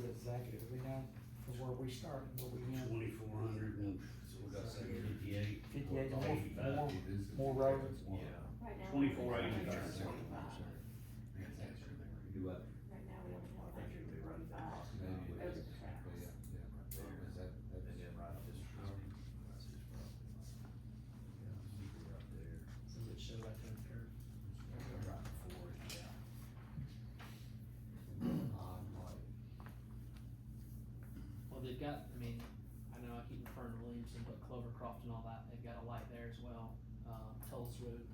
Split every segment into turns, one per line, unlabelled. negatively now from where we started, where we end.
Twenty-four hundred and, so we got say fifty-eight.
58, more-
Eighty-five.
more- more roads.
Yeah.
Right now, we
Twenty-four
only
eighty.
have
That's
twenty-five.
Do what?
Right now, we only have hundred and twenty-five over the tracks.
Oh.
Does it show that kind of curve? Well, they've got, I mean, I know I keep referring to Williamson, but Clovercroft and all that, they've got a light there as well, um, Tulls Road,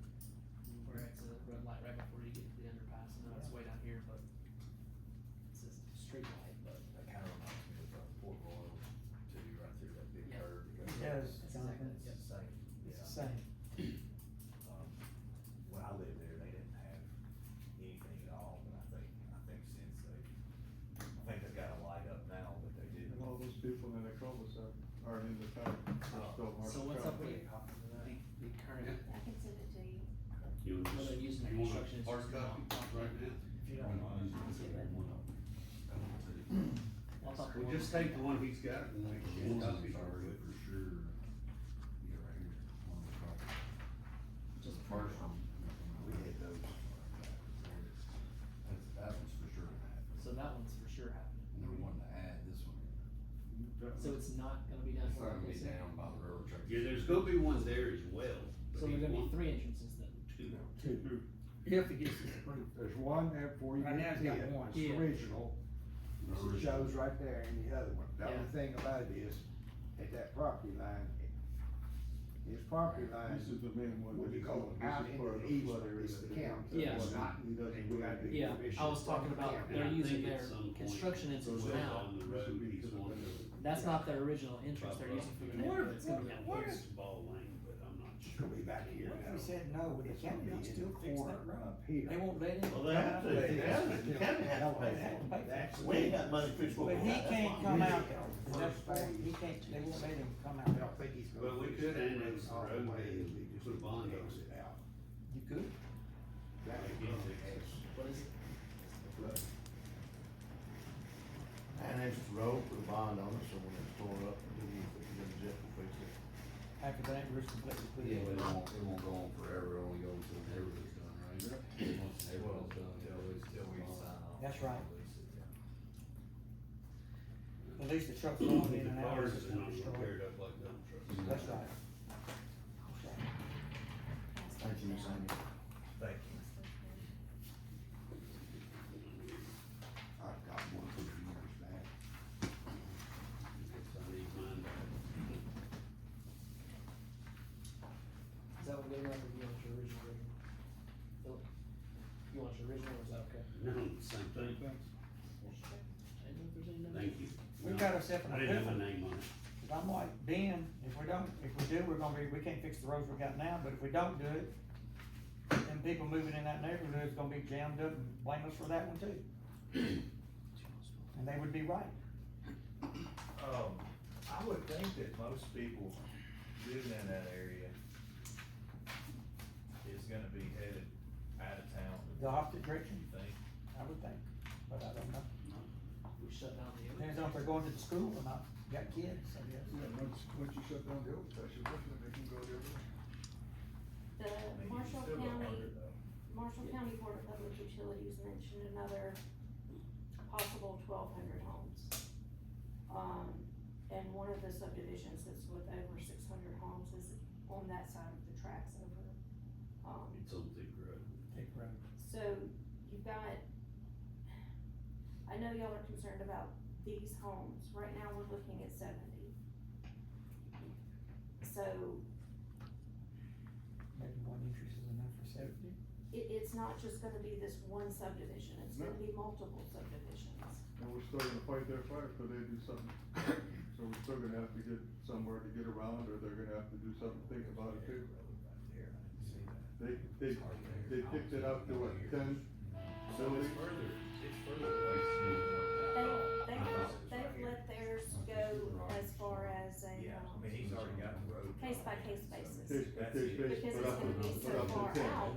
where it's a red light right before you get to the underpass, I know it's way down here, but it's a street light, but
That kind of reminds me of uh, Port Royal, to be right through that big
Yeah.
curve. that
It
goes up.
does,
That's exactly-
Jonathan,
It's the same,
it's the
yeah.
same.
Um, When I lived there, they didn't have anything at all, but I think, I think since they, I think they've got a light up now, but they didn't.
And all those people in the cul-de-sac are in the town, they're still marked.
Uh, So what's up
out.
with the, the current,
I can send it to you.
You
what
want
they're
to,
using
you
in
want
construction
a
is.
hard copy right now?
If you
Yeah.
don't, I'll talk to
Well,
one.
just take the one he's got and make ten copies.
Just
We had those. That's, that one's for sure gonna happen.
So that one's for sure happening,
And we wanted to add this one.
That-
so it's not gonna be down
It's
here
not
like
gonna
they
be
said.
down by the railroad tracks.
Yeah, there's gonna be one there as well. but
So there's
he
gonna be
wants
three entrances then.
two.
Two.
If it gets approved.
There's one there before you
Right now,
get
it's
to
got one.
it, it's original, it shows right there in the other one. The only
Yeah.
thing about it is, at that property line, his property line,
This is the main one.
what
that
you
is
call
on- this
out
is
into
part
the
of
east,
flood area
it's the
that-
county,
Yeah.
it's not,
He doesn't
we gotta
really-
be-
Yeah, I was talking about
And I
they're using
think at
their
some point,
construction entrance
goes
now.
down the road, he's wanting to-
That's not their original entrance they're using for the neighborhood, it's gonna be down
Now,
here.
it's ball lane, but I'm not sure.
Could be back here.
What if
now.
we said no, would the
It's gonna
county
be
not
in
still
the
fix
corner
that road?
up here.
They won't let him.
Well, they have to, they have to,
That's-
the county has to pay
They have to
for
pay
it.
for it.
We ain't got money to fix what we
But
got.
he
that's
can't
why.
come out,
Yeah.
that's why, he can't, they won't let him come
I
out.
don't think he's gonna.
Well, we
fix
could
that
annex the
all
road
way.
and
We just
put a
need to
bond
annex
on it.
it out.
You could,
That would be
Yeah.
the
What is it?
best.
Annex the road, put a bond on it, so when it's tore up, we can fix it, then Jeff will fix it.
after that, we're completely put
Yeah, but it
in.
won't, it won't go on forever, it only goes until everything's done, right? Once everything's done, it always
Till we
goes
sign off.
That's right.
Yeah.
At least the trucks will
The
in and out.
cars
It's
is
not
not
destroyed.
repaired up like dump trucks.
That's right. That's right.
Thank you, Ms. Amy.
Thank you.
I've got one from years back.
I need mine back.
Is that what they want, or you want your original rating? Philip, You want your original, or is that okay?
No, same thing.
I don't know if there's any numbers.
Thank you.
We
No,
got ourselves in a
I didn't have
pickle.
a name on it.
Cause I'm like, Ben, if we don't, if we do, we're gonna be, we can't fix the roads we got now, but if we don't do it, then people moving in that neighborhood is gonna be jammed up and blame us for that one too. And they would be right.
Um, I would think that most people living in that area is gonna be headed out of town.
The opposite direction,
You think?
I would think, but I don't know.
We shut down the.
Depends on if they're going to the school or not. Got kids, I guess.
Yeah, once, once you shut down the old section, they can go the other way.
The
I mean, you
Marshall
still got
County,
hundred though.
Marshall County Board of Public Utilities mentioned another possible twelve hundred homes. Um, and one of the subdivisions that's with over six hundred homes is on that side of the tracks over, um,
It's on thick road.
Take road.
So you've got, I know y'all are concerned about these homes, right now we're looking at seventy. So
Maybe one interest is enough for safety.
it, it's not just gonna be this one subdivision, it's gonna be multiple subdivisions.
And we're still gonna fight their fire till they do something. So we're still gonna have to get somewhere to get around, or they're gonna have to do something, think about it too.
Right there, I didn't see that.
They, they, they picked it up to what, ten
So
buildings?
it's further, it's further away than
They,
what that-
they've, they've let theirs go as far as a,
Yeah, I
um,
mean, he's already got the road.
case by case basis.
Case- case-
Because it's
but up-
gonna be
but
so
up to
far
10.
out,